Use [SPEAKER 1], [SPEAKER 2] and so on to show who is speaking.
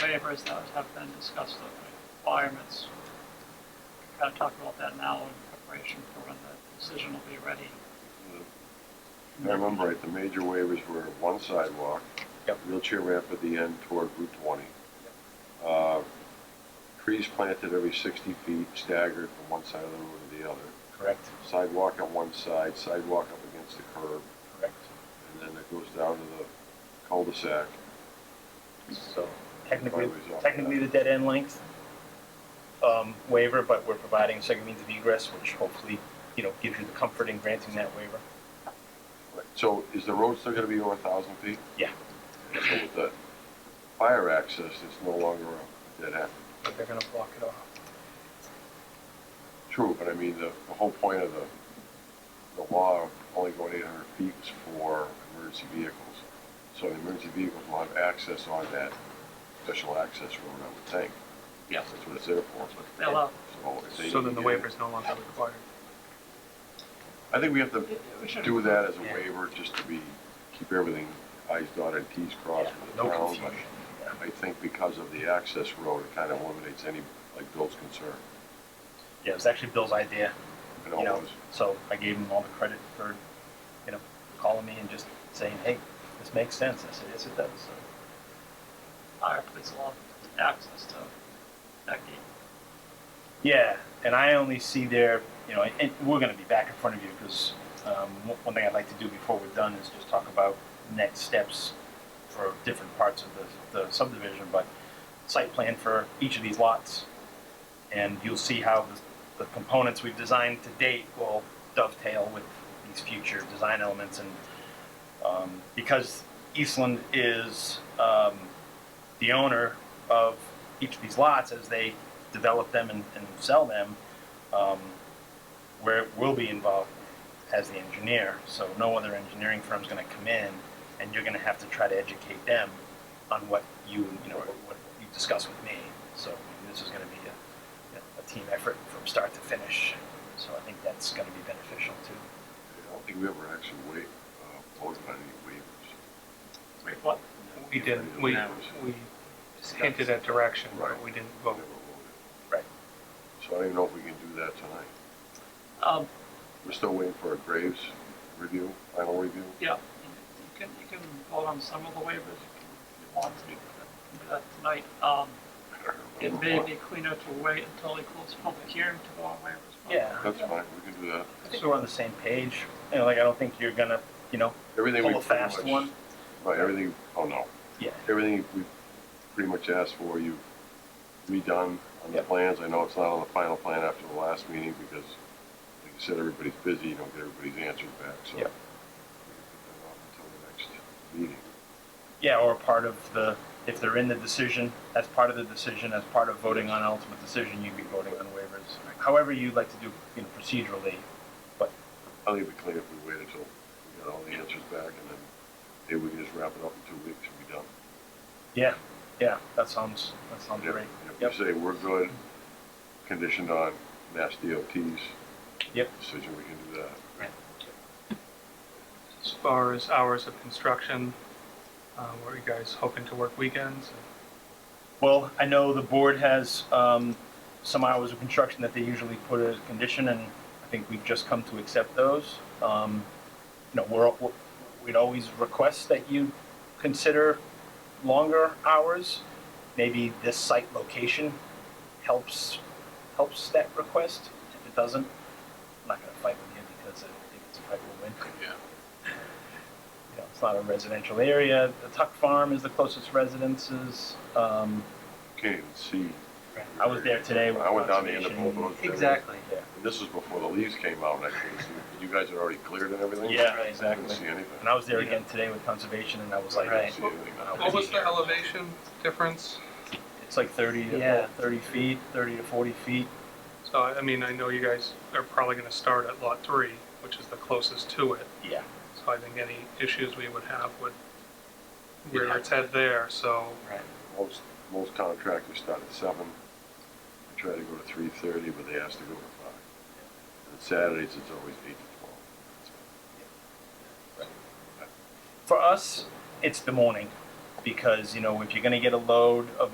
[SPEAKER 1] waivers that have been discussed, the requirements. Kind of talk about that now in preparation for when the decision will be ready.
[SPEAKER 2] If I remember right, the major waivers were one sidewalk.
[SPEAKER 3] Yep.
[SPEAKER 2] Wheelchair ramp at the end toward Route 20. Uh, Trees planted every 60 feet staggered from one side of the road to the other.
[SPEAKER 3] Correct,
[SPEAKER 2] Sidewalk on one side, sidewalk up against the curb,
[SPEAKER 3] correct.
[SPEAKER 2] and then it goes down to the cul-de-sac.
[SPEAKER 3] So technically,
[SPEAKER 2] Driveways off
[SPEAKER 3] technically the dead end length um, waiver, but we're providing second means of egress, which hopefully, you know, gives you the comfort in granting that waiver.
[SPEAKER 2] Right, So is the road still gonna be over 1,000 feet?
[SPEAKER 3] Yeah.
[SPEAKER 2] So with the fire access, it's no longer a dead end.
[SPEAKER 3] But they're gonna block it off.
[SPEAKER 2] True, but I mean, the, the whole point of the, the law of only going eight hundred feet was for emergency vehicles. So the emergency vehicles will have access on that special access road, I would think.
[SPEAKER 1] Yes.
[SPEAKER 2] That's what it's there for.
[SPEAKER 1] That's what they allow.
[SPEAKER 2] So if they
[SPEAKER 4] So then the
[SPEAKER 2] can get it-
[SPEAKER 4] waiver's no longer required.
[SPEAKER 2] I think we have to
[SPEAKER 1] We should-
[SPEAKER 2] do that as a
[SPEAKER 3] Yeah.
[SPEAKER 2] waiver, just to be, keep everything i's dotted, t's crossed with the
[SPEAKER 3] No
[SPEAKER 2] town.
[SPEAKER 3] confusion.
[SPEAKER 2] but I think because of the access road, it kind of eliminates any, like Bill's concern.
[SPEAKER 3] Yeah, it was actually Bill's idea,
[SPEAKER 2] It
[SPEAKER 3] you know,
[SPEAKER 2] always-
[SPEAKER 3] so I gave him all the credit for, you know, calling me and just saying, hey, this makes sense. I said, yes, it does. So,
[SPEAKER 1] Fire police allow access to that gate.
[SPEAKER 3] Yeah, and I only see there, you know, and we're gonna be back in front of you because um, one- one thing I'd like to do before we're done is just talk about next steps for different parts of the, the subdivision, but site plan for each of these lots. And you'll see how the, the components we've designed to date will dovetail with these future design elements and, um, because Eastland is, um, the owner of each of these lots as they develop them and, and sell them, um, where we'll be involved as the engineer. So no other engineering firm's going to come in, and you're going to have to try to educate them on what you you know what, what you discuss with me. So I mean, this is going to be a, a team effort from start to finish. So I think that's going to be beneficial too.
[SPEAKER 2] I don't think we ever actually waived, uh, voted on any waivers.
[SPEAKER 1] Wait, what?
[SPEAKER 4] We didn't, we, we just hinted at direction, but we didn't vote.
[SPEAKER 3] Right.
[SPEAKER 2] So I don't even know if we can do that tonight.
[SPEAKER 1] Um,
[SPEAKER 2] We're still waiting for a Graves review, final review.
[SPEAKER 1] yeah, you can, you can vote on some of the waivers if you want to, do that tonight. Um, it may be cleaner to wait until he closes public hearing to vote on waivers. but-
[SPEAKER 3] Yeah.
[SPEAKER 2] That's fine, we can do that.
[SPEAKER 3] I think we're on the same page. You know, like I don't think you're going to you know
[SPEAKER 2] Everything we
[SPEAKER 3] Pull a
[SPEAKER 2] pretty
[SPEAKER 3] fast
[SPEAKER 2] much-
[SPEAKER 3] one?
[SPEAKER 2] Right, everything, oh no,
[SPEAKER 3] yeah
[SPEAKER 2] everything we pretty much asked for, you redone on the
[SPEAKER 3] Yep.
[SPEAKER 2] plans. I know it's not on the final plan after the last meeting because, like you said, everybody's busy, you don't get everybody's answers back, so.
[SPEAKER 3] Yep.
[SPEAKER 2] we can put that off Until the next meeting.
[SPEAKER 3] Yeah, or part of the, if they're in the decision, as part of the decision, as part of voting on ultimate decision, you'd be voting on waivers. However you'd like to do, you know, procedurally, but,
[SPEAKER 2] I think it'd be clean if we waited until we got all the answers back and then maybe we can just wrap it up in two weeks and be done.
[SPEAKER 3] yeah, yeah, that sounds, that sounds
[SPEAKER 2] If-
[SPEAKER 3] great. Yep.
[SPEAKER 2] If you say we're good, conditioned on Mass DOT's
[SPEAKER 3] Yep.
[SPEAKER 2] decision, we can do that.
[SPEAKER 4] As far as hours of construction, uh, were you guys hoping to work weekends?
[SPEAKER 3] Well, I know the board has, um, some hours of construction that they usually put as a condition, and I think we've just come to accept those. Um, you know, we're, we're- we'd always request that you consider longer hours. Maybe this site location helps, helps that request. If it doesn't, I'm not gonna fight with you because I think it's a fight we'll win.
[SPEAKER 2] Yeah.
[SPEAKER 3] You know, it's not a residential area. The Tuck Farm is the closest residences. Um,
[SPEAKER 2] Can't even see.
[SPEAKER 3] I was there today. with
[SPEAKER 2] I went down the end of
[SPEAKER 3] conservation.
[SPEAKER 2] both those. areas. And this was before the leaves came out and I couldn't see, you guys had already cleared and everything? I
[SPEAKER 3] Yeah,
[SPEAKER 2] couldn't
[SPEAKER 3] exactly.
[SPEAKER 2] see anything.
[SPEAKER 3] And I was there again today with conservation, and I was like,
[SPEAKER 2] I couldn't see anything.
[SPEAKER 4] What was the elevation difference?
[SPEAKER 3] it's like 30 to
[SPEAKER 4] Yeah.
[SPEAKER 3] 30 feet, 30 to 40 feet.
[SPEAKER 4] So, I I mean, I know you guys are probably gonna start at lot three, which is the closest to it.
[SPEAKER 3] Yeah.
[SPEAKER 4] So I think any issues we would have would rear its head there, so
[SPEAKER 3] Right.
[SPEAKER 2] Most, most contractors start at seven. I try to go to three thirty, but they asked to go to five. And Saturdays, it's always eight to twelve.
[SPEAKER 3] For us, it's the morning because you know if you're going to get a load of